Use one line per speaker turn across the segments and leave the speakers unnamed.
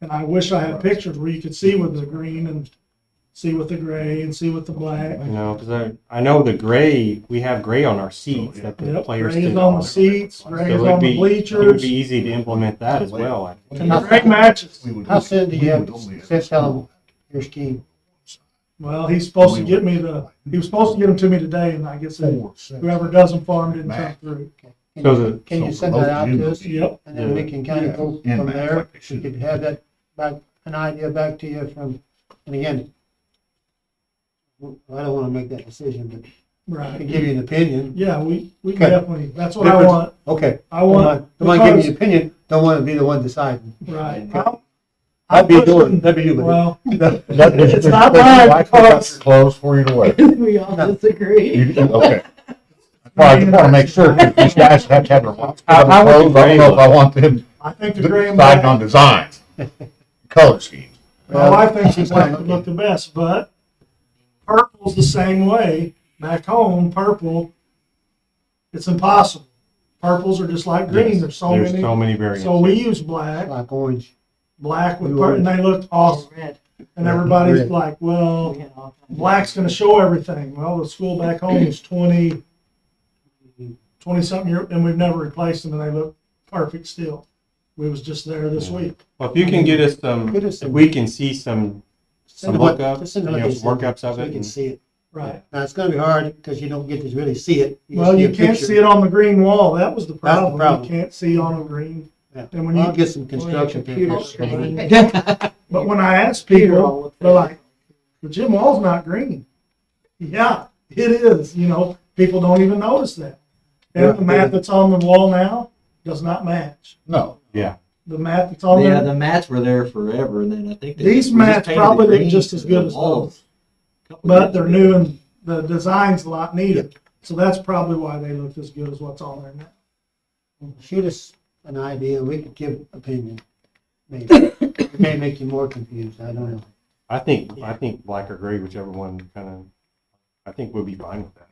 And I wish I had pictures where you could see with the green and see with the gray and see with the black.
You know, because I, I know the gray, we have gray on our seats that the
Yep,
players
gray
can.
is on the seats,
So
gray
it
is
would
on
be,
the
it would
bleachers.
be easy to implement that as well. I-
And the gray matches.
We would
How
only-
soon do
we
you have,
would only-
set how your scheme?
Well, he's supposed to get me the, he was supposed to get them to me today and I guess they-
Four sets.
whoever does them for him didn't come through.
Can
So
you-
the-
Can you
so
send
for
that
those
out
you-
to us?
Yep,
And then we
Yeah.
can kind
Yeah.
of go
In
from
that,
there.
like they
We
should.
could have that back, an idea back to you from, and again, I don't want to make that decision, but I
right.
can give you an opinion.
Yeah, we, we
Okay.
definitely, that's what I
Difference-
want.
Okay.
I want.
Don't mind giving you
because-
an opinion, don't want to be the one deciding.
Right.
That'd be yours,
pushing-
that'd be you, buddy.
Well,
No,
It's not mine, because-
Close for you to wear.
We all disagree.
You- you- Okay. Well, I just want to make sure, 'cause these guys have to have their clothes, I
How- how would
don't
you grade
know if I
them?
want them
I think the gray and
deciding on
black,
designs, color schemes.
my wife thinks the black would look the best, but purple's the same way. Back home, purple, it's impossible. Purples are just like green, there's so
There's
many.
so many variants.
So we use black,
Like orange.
black with purple, and they looked awesome.
Red.
And everybody's
Red.
like, well,
We had all kinds of-
black's gonna show everything. Well, the school back home is twenty, twenty-something year, and we've never replaced them, and they look perfect still. We was just there this week.
Well, if you can get us some,
Get us
if
some-
we can see some, some
Send what-
lookup,
just
you
send what
know,
they
some
send,
workups
so
of
we
it.
can
and-
see it.
Right.
Now, it's gonna be hard, because you don't get to really see it. just
Well,
see
you
a
can't
picture.
see it on the green wall. That was the
the
problem. You
problem.
can't see on a green.
Yeah.
And when
I'll
you,
get some construction
Computer
papers.
screen.
Well,
but when I ask
Computer
people,
all looked
they're
at
like, the gym wall's not green. Yeah, it is, you know, people don't even notice that.
Yeah.
And the mat that's on the wall now does not match.
No,
Yeah,
The mat that's on
Yeah,
there,
the mats were there forever, and then I think. they-
These
we just
mats
painted
probably
the
look
greens
just as
to
good
the
as
walls. Couple
but
years
they're
ago.
new and the design's a lot neater. So that's probably why they looked as good as what's on there now.
Shoot us an idea, we could give opinion, maybe. It may make you more confused, I don't know.
I think, I think black or gray, whichever one kind of, I think we'll be fine with that.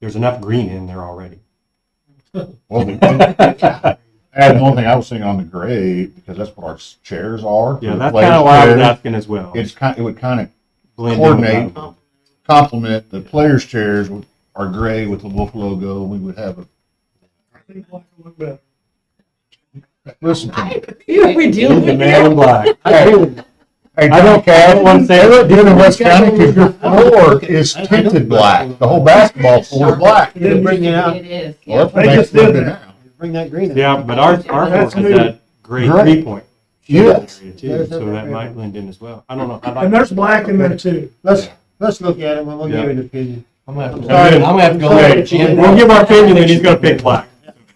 There's enough green in there already.
well, the- the- add one thing I was thinking on the gray, because that's what our s- chairs are.
Yeah,
the
that's
players'
kind of why I was
chairs.
asking as well.
It's kind, it would kind of
Blend in with
coordinate.
that.
complement, the players' chairs would- are gray with the wolf logo, and we would have a,
I think black will look better.
listen to me.
Yeah, we
He's the man in black.
Hey,
I don't care. I don't want to say it.
You're in West County because your floor is tinted black. The whole basketball floor is black.
It'll bring it out,
It is,
Well,
yeah.
that's what
They
makes
just did
it
that.
now.
bring that green out.
Yeah, but ours, our
That's
floor
new.
is that gray
Great.
three point.
Yes.
area too,
There's
So
that
that
gray
might
one.
blend in as well. I don't know. I'd like-
And there's black in there too.
Let's, let's look at it, and we'll give
Yeah.
you an opinion.
I'm gonna have to-
Sorry.
I'm gonna have to go
Sorry.
look at Jim. We'll give our opinion and he's gonna pick black.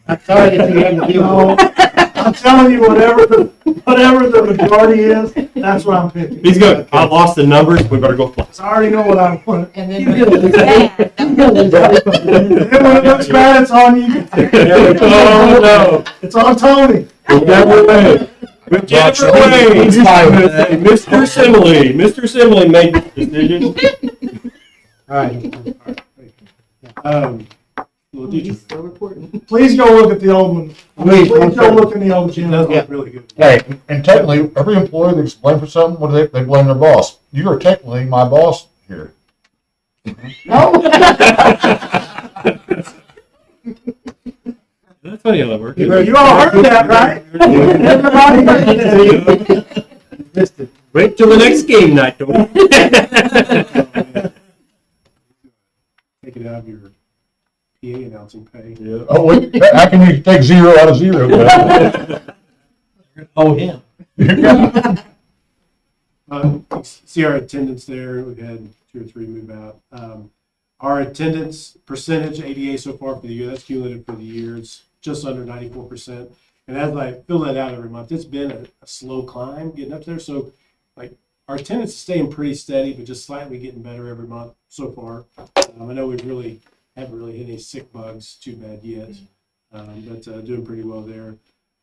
I'm sorry that you had to deal with
No, I'm telling you, whatever the, whatever the majority is, that's what I'm picking.
He's good. I lost the numbers. We better go black.
'Cause I already know what I want.
And then when it was bad,
And when it looks bad, it's on you.
Oh,
It's on Tony.
no. Whichever way. Whichever way.
He's fine with that.
Mr. Simile, Mr. Simile made this decision.
All right.
Um,
He's still reporting.
Please go look at the old one.
Wait,
Please
one
go
second.
look in the old gym.
look
really good.
Hey, and technically, every employee that's blamed for something, what do they, they blame their boss. You are technically my boss here.
That's funny how that works.
You all heard that, right? Everybody heard that.
Missed it.
Wait till the next game night, don't.
take it out of your PA announcing pay.
Oh, wait, I can take zero out of zero.
Oh, him.
Um, you See our attendance there, we had two or three move out. Um, Our attendance percentage ADA so far for the year, that's cumulative for the year, it's just under ninety-four percent. And as I fill that out every month, it's been a, a slow climb getting up there, so like, our attendance is staying pretty steady, but just slightly getting better every month so far. Um, I know we've really, haven't really hit any sick bugs too bad yet, um, but uh, doing pretty well there.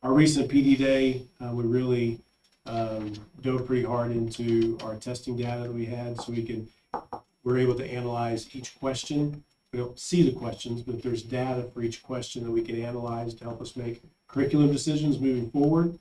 Our recent PD day, uh, we really, um, dove pretty hard into our testing data that we had, so we can, we're able to analyze each question. We don't see the questions, but there's data for each question that we can analyze to help us make curriculum decisions moving forward.